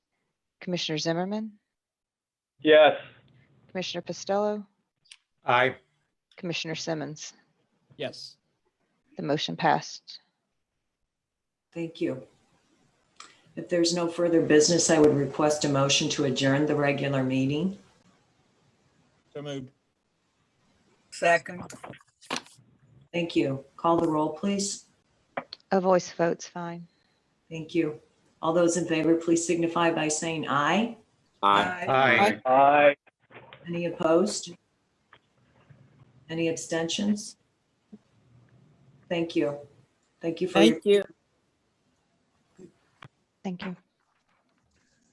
Commissioner Zimmerman, Yes. Commissioner Costello, Aye. Commissioner Simmons. Yes. The motion passed. Thank you. If there's no further business, I would request a motion to adjourn the regular meeting. So moved. Second, Thank you. Call the roll, please. A voice vote's fine. Thank you. All those in favor, please signify by saying aye. aye. Aye. Aye. Any opposed? Any abstentions? Thank you. Thank you for your Thank you. Thank you.